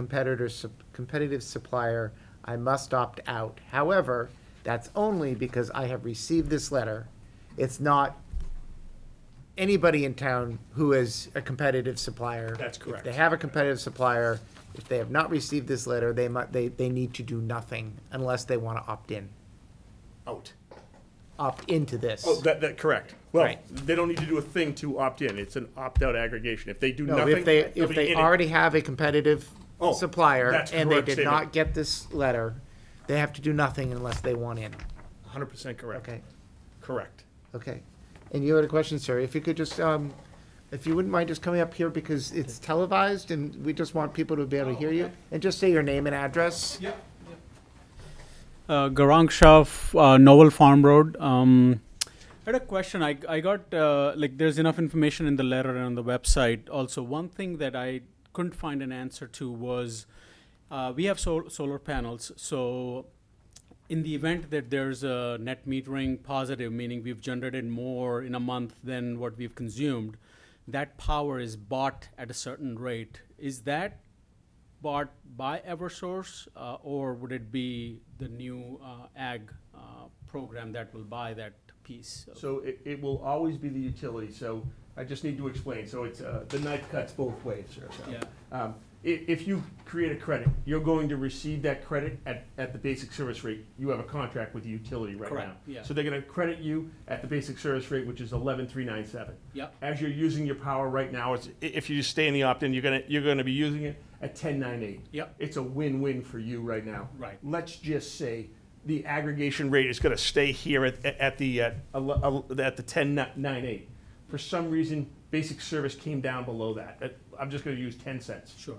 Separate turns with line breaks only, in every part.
competitor, sup- competitive supplier, I must opt out. However, that's only because I have received this letter. It's not anybody in town who is a competitive supplier.
That's
If
correct.
they have a competitive supplier, if they have not received this letter, they mu, they, they need to do nothing unless they want to opt in,
out.
opt into this.
Oh, that, that, correct. Well,
Right.
they don't need to do a thing to opt in. It's an opt-out aggregation. If they do
No,
nothing.
if they,
they'll
if
be
they
in it.
already have a competitive
Oh,
supplier
that's
and they
correct
did
statement.
not get this letter, they have to do nothing unless they want in.
Hundred percent correct.
Okay,
Correct.
okay. And you had a question, sir. If you could just, um, if you wouldn't mind just coming up here because it's televised and we just want people to be able to hear you. And just say your name and address.
Uh, Garang Shah, f- uh, Novel Farm Road. Um, I had a question. I, I got, uh, like, there's enough information in the letter and on the website. Also, one thing that I couldn't find an answer to was uh, we have sol- solar panels. So, in the event that there's a net metering positive, meaning we've generated more in a month than what we've consumed, that power is bought at a certain rate. Is that bought by Eversource, uh, or would it be the new uh, ag uh, program that will buy that piece? of-
So it, it will always be the utility, so I just need to explain, so it's, uh, the knife cuts both ways, sir, so.
Yeah.
Um, i- if you create a credit, you're going to receive that credit at, at the basic service rate, you have a contract with the utility right now.
Correct, yeah.
So they're gonna credit you at the basic service rate, which is eleven three nine seven.
Yep.
As you're using your power right now, it's, i- if you just stay in the opt-in, you're gonna, you're gonna be using it at ten nine eight.
Yep.
It's a win-win for you right now.
Right.
Let's just say the aggregation rate is going to stay here at, at the, uh, ele- ele- at the ten nine eight. For some reason, basic service came down below that. That- I'm just going to use ten cents.
Sure.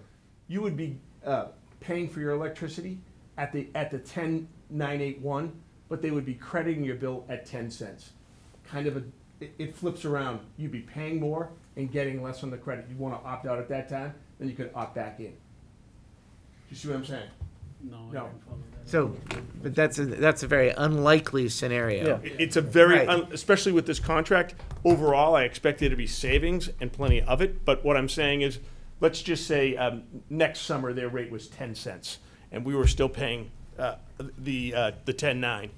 You would be, uh, paying for your electricity at the, at the ten nine eight one, but they would be crediting your bill at ten cents. Kind of a, it, it flips around. You'd be paying more and getting less on the credit. You want to opt out at that time, then you could opt back in. Do you see what I'm saying?
No, I
No.
didn't follow that.
So, but that's, a that's a very unlikely scenario.
It- It's a very,
Right.
un- especially with this contract, overall, I expect there to be savings and plenty of it. But what I'm saying is, let's just say um, next summer, their rate was 10 cents, and we were still paying uh, the, uh, the 10.9.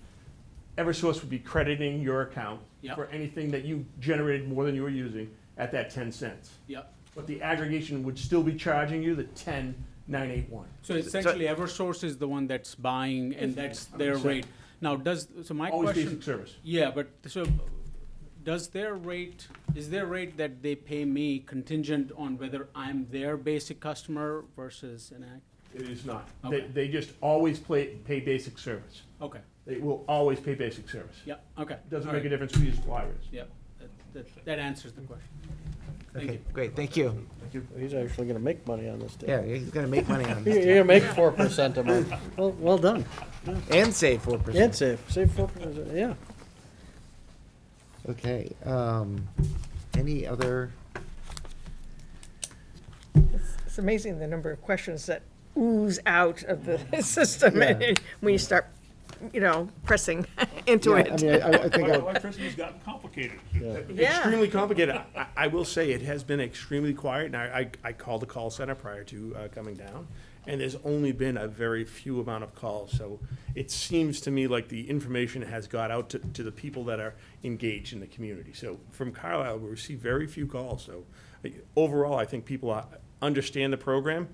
Eversource would be crediting your account
Yep.
for anything that you generated more than you were using at that 10 cents.
Yep.
But the aggregation would still be charging you the 10.981.
So essentially, Eversource is the one that's buying, and that's their
Understand.
rate. Now, does, so my
Always
question.
basic service.
Yeah, but so does their rate, is their rate that they pay me contingent on whether I'm their basic customer versus an ag?
It is not. They,
Okay.
they just always play, pay basic service.
Okay,
They will always pay basic service.
yeah, okay.
Doesn't
all
make a
right,
difference who your supplier is.
Yeah, that, that, that answers the question. Thank
Okay,
you.
great, thank you.
He's actually gonna make money on this
Yeah,
deal.
he's gonna make money on
You're
this
gonna make four percent a month. Well, well done.
and save four percent.
And save, save four percent, yeah.
Okay, um, any other?
It's amazing the number of questions that ooze out of the system
Yeah.
when you start, you know, pressing into
Yeah, I mean,
it.
I, I- I think I would-
Electricity's gotten complicated.
Yeah.
Uh, Extremely complicated. I- I, I will say, it has been extremely quiet, and I, I I called the call center prior to uh, coming down, and there's only been a very few amount of calls, so it seems to me like the information has got out to, to the people that are engaged in the community. So from Carlisle, we receive very few calls, so uh, overall, I think people uh, understand the program,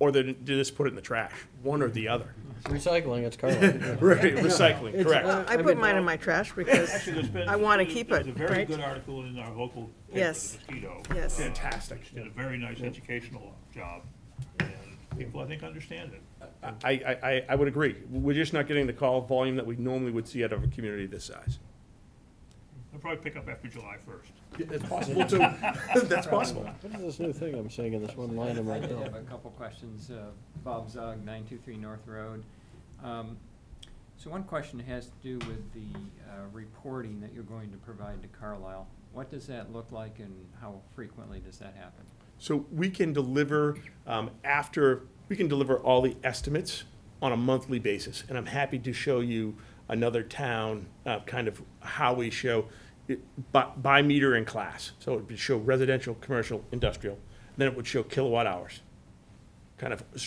or they didn't- they just put it in the trash, one or the other.
Recycling, it's carbon.
Right, recycling,
It's,
correct.
uh,
I put mine in my trash because,
Actually, there's been.
I wanna
there's-
keep
there's
it,
a very
right?
good article in our local paper,
Yes.
The Mosquito.
Yes.
uh,
Fantastic.
Did a very nice educational job, and people, I think, understand it.
I, I, I- I would agree. We're just not getting the call volume that we normally would see out of a community this size.
They'll probably pick up after July first.
That's possible, too. That's possible.
What is this new thing I'm seeing in this one line of my
I did
bill?
have a couple questions. Uh, Bob Zog, 923 North Road. Um, So one question has to do with the uh, reporting that you're going to provide to Carlisle. What does that look like and how frequently does that happen?
So we can deliver um, after, we can deliver all the estimates on a monthly basis. And I'm happy to show you another town, uh, kind of how we show it by, by meter in class. So it would show residential, commercial, industrial, then it would show kilowatt hours. kind of